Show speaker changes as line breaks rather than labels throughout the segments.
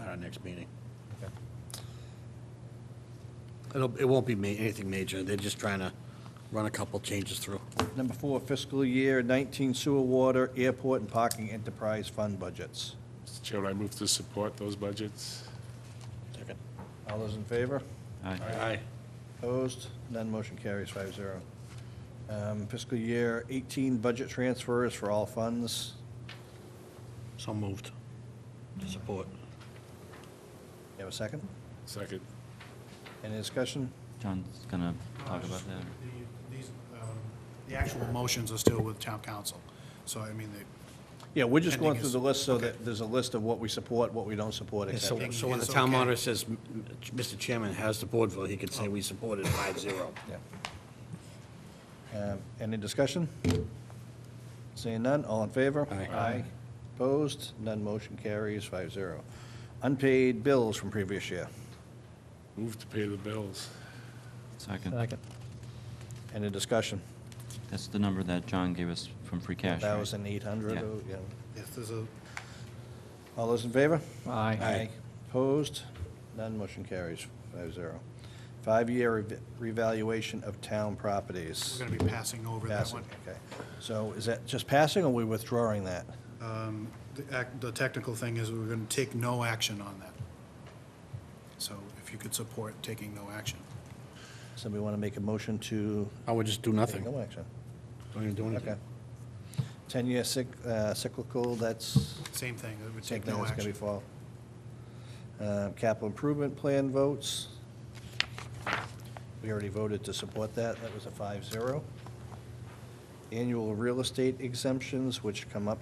our next meeting. It'll, it won't be ma, anything major, they're just trying to run a couple changes through.
Number four, fiscal year 19 sewer, water, airport, and parking enterprise fund budgets.
Mr. Chairman, I move to support those budgets.
Second.
All those in favor?
Aye.
Opposed? None motion carries five zero. Um, Fiscal year 18 budget transfers for all funds.
So moved. Support.
You have a second?
Second.
Any discussion?
John's gonna talk about that.
The- These, um, the actual motions are still with town council, so I mean, the.
Yeah, we're just
I
going
think
through the
it's-
list so that there's a list of what we support, what we don't support, et
So,
cetera.
so when the
It's
town
okay.
monitor says, "M- m- Mr. Chairman has the board vote, he could say we supported five zero.
Yeah. Um, Any discussion? Seeing none, all in favor?
Aye.
Opposed? None motion carries five zero. Unpaid bills from previous year.
Move to pay the bills.
Second.
Any discussion?
That's the number that John gave us from free cash, right?
1,800,
Yeah.
oh, yeah.
If there's a,
All those in favor?
Aye.
Aye.
Opposed? None motion carries five zero. Five-year rev- revaluation of town properties.
we're going to be passing over that
Passing,
one.
okay. So is that just passing or we withdrawing that?
The act- The technical thing is we're going to take no action on that. So if you could support taking no action.
Somebody want to make a motion to?
I would just do nothing,
No action.
don't even do
Okay.
anything.
10-year cyc- uh, cyclical, that's,
Same thing, it would
same
take
thing
no
that's going to be
action.
fall. Uh, Capital improvement plan votes. We already voted to support that. That was a 5-0. Annual real estate exemptions, which come up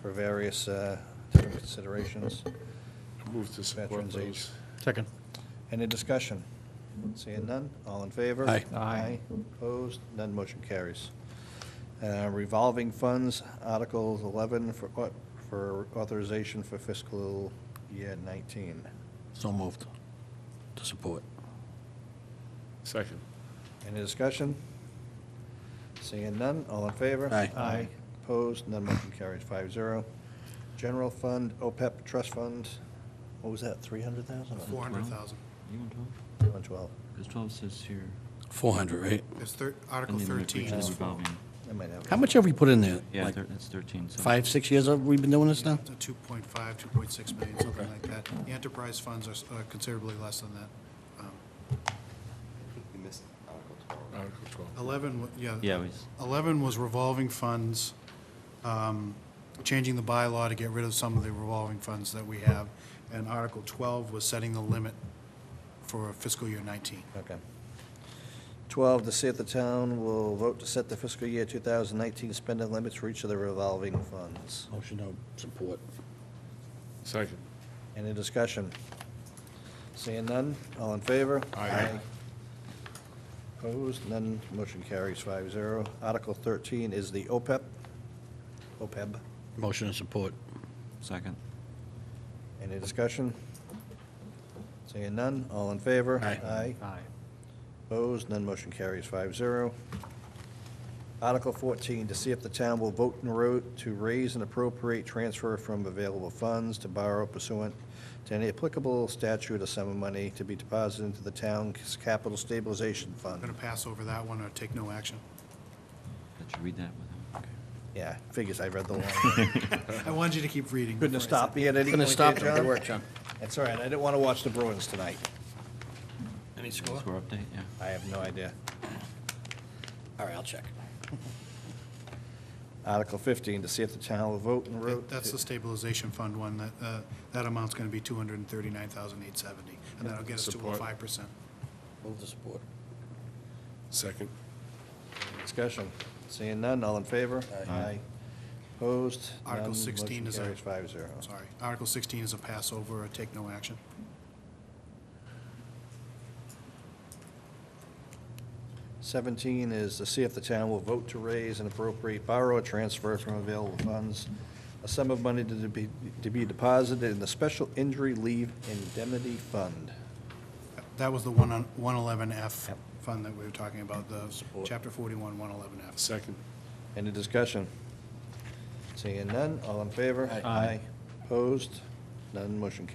for various uh, different considerations.
I move to support
Veterans
those.
Second.
Any discussion? Seeing none, all in favor?
Aye.
Aye.
Opposed, none motion carries. Uh, Revolving funds, Article 11 for au- for authorization for fiscal year 19.
So moved. To support.
Second.
Any discussion? Seeing none, all in favor?
Aye.
Aye. Opposed, none motion carries, five zero. General fund, OPEP trust fund, what was that, 300,000?
400,000.
You want 12?
112,
Because 12 says here.
Four hundred, right?
It's thir- Article
and then we- we
13
do
is for
revolving.
I might have. it.
How much have we put in there?
Yeah,
Like
thir- that's 13, so.
Five, six years have we been doing this now?
it's a 2.5, 2.6 million, something like that. The enterprise funds are s- are considerably less than that. Um,
You missed Article 12.
Article 12.
11, wa- yeah.
Yeah, we s-
11 was revolving funds, um, changing the bylaw to get rid of some of the revolving funds that we have, and Article 12 was setting the limit for fiscal year 19.
Okay. 12, to see if the town will vote to set the fiscal year 2019 spending limits for each of the revolving funds.
Motion to support.
Second.
Any discussion? Seeing none, all in favor?
Aye.
Opposed, none, motion carries 5-0. Article 13 is the E OPEB, OPEB.
Motion to support.
Second.
Any discussion? Seeing none, all in favor?
Aye.
Aye. Opposed, none motion carries 5-0. Article 14, to see if the town will vote and road to raise and appropriate transfer from available funds to borrow pursuant to any applicable statute or sum of money to be deposited into the town's capital stabilization
I'm
fund.
going to pass over that one or take no action.
Let you read that with him. Okay.
Yeah, figures I read the law.
I wanted you to keep reading.
Couldn't have
before I said-
stopped me at any
Going to
point
stop
there,
it. Good
John.
work, John.
That's all right, I didn't want to watch the Bruins tonight.
Any score?
Score update, yeah.
I have no idea.
All right, I'll check.
Article 15, to see if the town will vote and road.
That- That's the stabilization fund one, that, uh, that amount's going to be 239,870, and that'll get us to a
Support.
5%.
Move to support.
Second.
Discussion. Seeing none, all in favor? Aye. Opposed?
Article
None.
16 is a-
Motion carries 5-0.
Sorry. Article 16 is a pass over or take no action.
Seventeen is to see if the town will vote to raise and appropriate borrow or transfer from available funds a sum of money to be, to be deposited in the Special Injury Leave Indemnity Fund.
That was the one on 111F fund that we were talking about, the
Support.
Chapter 41, 111F.
Second.
Any discussion? Seeing none, all in favor?
Aye.
Opposed? None. Motion carries